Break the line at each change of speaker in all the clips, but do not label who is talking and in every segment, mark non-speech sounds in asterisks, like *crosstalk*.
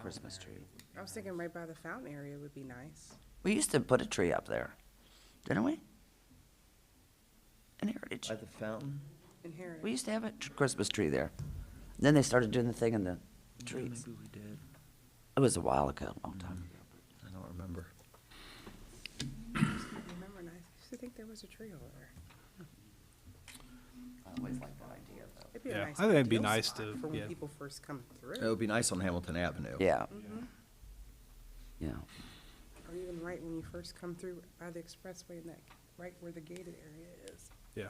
Christmas tree.
I was thinking right by the fountain area would be nice.
We used to put a tree up there, didn't we? In Heritage.
By the fountain?
In Harris.
We used to have a tr- Christmas tree there. Then they started doing the thing in the trees.
Maybe we did.
It was a while ago, a long time.
I don't remember.
Remember nice. I used to think there was a tree over there.
I always liked that idea, though.
It'd be
Yeah,
a nice.
I think it'd be
ideal
nice
spot
to-
For when
yeah.
people first come
It
through,
would be nice on Hamilton Avenue.
Yeah. Yeah.
or even right when you first come through by the expressway and that, right where the gated area is.
Yeah,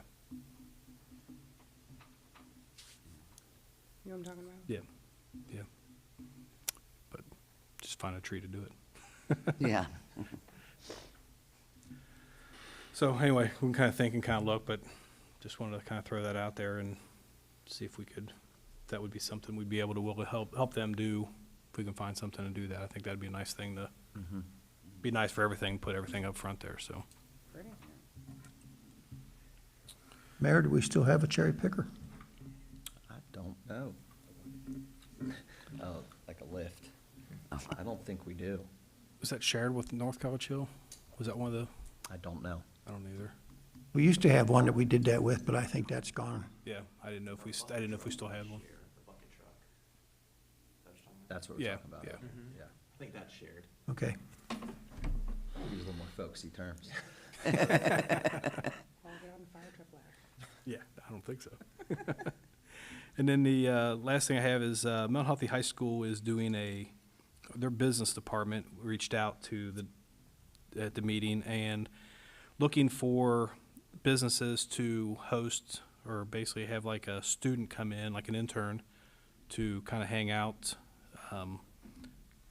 You know what I'm talking about?
yeah, yeah. But just find a tree to do it.
Yeah.
So anyway, we can kind of think and kind of look, but just wanted to kind of throw that out there and see if we could, that would be something we'd be able to, will help, help them do, if we can find something to do that. I think that'd be a nice thing to, be nice for everything, put everything up front there, so.
Pretty.
Mayor, do we still have a cherry picker?
I don't know. Oh, like a lift. I don't think we do.
Was that shared with North College Hill? Was that one of the,
I don't know.
I don't either.
We used to have one that we did that with, but I think that's gone.
Yeah, I didn't know if we, st- I didn't know if we still had one.
That's what we're
Yeah,
talking about.
yeah.
Yeah.
I think that's shared.
Okay.
Use a little more folksy terms.
I'll get on the fire truck ladder.
Yeah, I don't think so. *laughs* and then the uh, last thing I have is uh, Mount Healthy High School is doing a their business department reached out to the at the meeting and looking for businesses to host or basically have like a student come in, like an intern, to kind of hang out, um,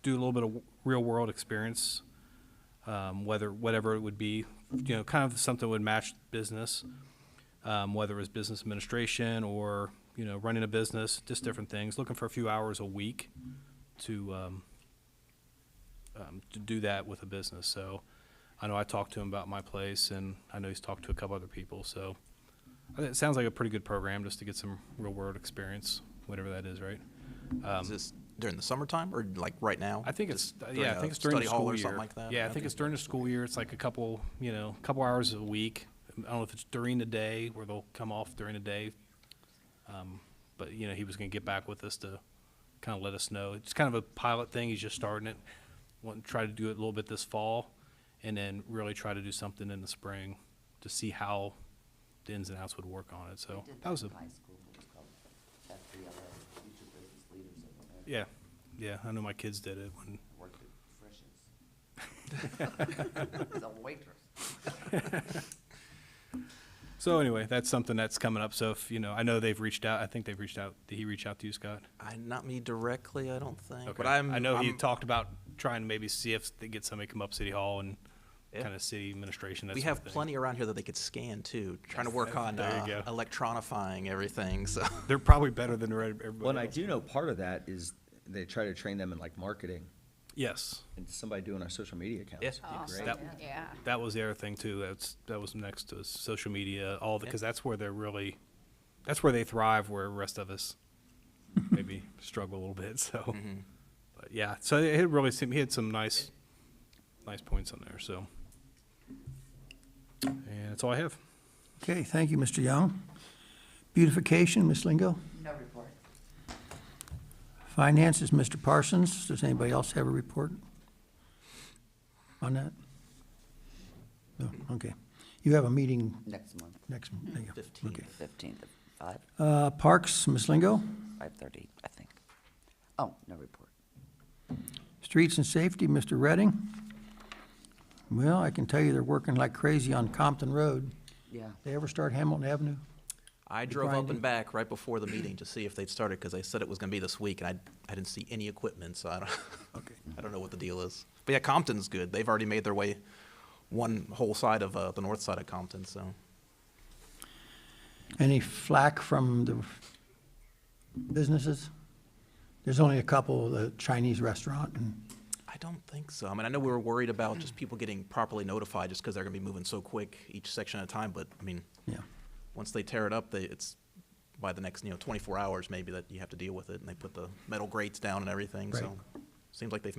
do a little bit of real world experience, um, whether whatever it would be, you know, kind of something that would match business um, whether it was business administration or you know running a business, just different things. Looking for a few hours a week to um, um, to do that with a business. So I know I talked to him about my place, and I know he's talked to a couple other people. So I think it sounds like a pretty good program just to get some real world experience, whatever that is, right?
Is this during the summertime or like right now?
I think it's uh,
Just during
yeah, I
a
think it's during the
study hall
school
or
year.
something like that?
Yeah, I think it's during the school year. It's like a couple, you know, a couple hours a week. I don't know if it's during the day where they'll come off during the day. Um, but you know, he was going to get back with us to kind of let us know. It's kind of a pilot thing. He's just starting it. Want to try to do it a little bit this fall, and then really try to do something in the spring to see how the ins and outs would work on it. So that was a yeah, yeah. I know my kids did it when *laughs* *laughs* So anyway, that's something that's coming up. So if you know, I know they've reached out. I think they've reached out. Did he reach out to you, Scott?
I, not me directly, I don't think.
Okay.
But I'm.
I know he
I'm-
talked about trying to maybe see if they get somebody come up City Hall and
Yeah.
kind of city administration. That
We
sort of
have
thing.
plenty around here that they could scan too. Trying to work on
There you
uh,
go.
electronifying everything. So
They're probably better than everybody.
Well, and I
else.
do know part of that is they try to train them in like marketing
Yes,
and somebody doing our social media accounts.
Yeah.
would be
Awesome,
great.
That-
yeah.
that was the other thing too. That's that was next to social media, all because that's where they're really, that's where they thrive. Where the rest of us maybe struggle a little bit. *laughs* So, but yeah. So it it really seemed he had some nice, nice points on there. So, and that's all I have.
Okay, thank you, Mr. Young. Beautification, Ms. Lingo.
No report.
Finances, Mr. Parsons. Does anybody else have a report on that? No, okay. You have a meeting
Next month,
next, there you go.
Fifteenth.
Okay.
fifteenth of five,
Uh, Parks, Ms. Lingo.
five-thirty, I think. Oh, no report.
Streets and Safety, Mr. Redding. Well, I can tell you they're working like crazy on Compton Road.
Yeah.
They ever start Hamilton Avenue?
I drove up
grinding.
and back right before the meeting to see if they'd started because they said it was going to be this week, and I I didn't see any equipment, so I don't. *laughs* I don't know what the deal is. But yeah, Compton's good. They've already made their way one whole side of uh, the north side of Compton, so.
Any flack from the businesses? There's only a couple, the Chinese restaurant and,
I don't think so. I mean, I know we were worried about just people getting properly notified just because they're going to be moving so quick each section at a time. But I mean,
yeah.
once they tear it up, they, it's by the next, you know, 24 hours maybe that you have to deal with it. And they put the metal grates down and everything. So
Right.
it's Seems like they've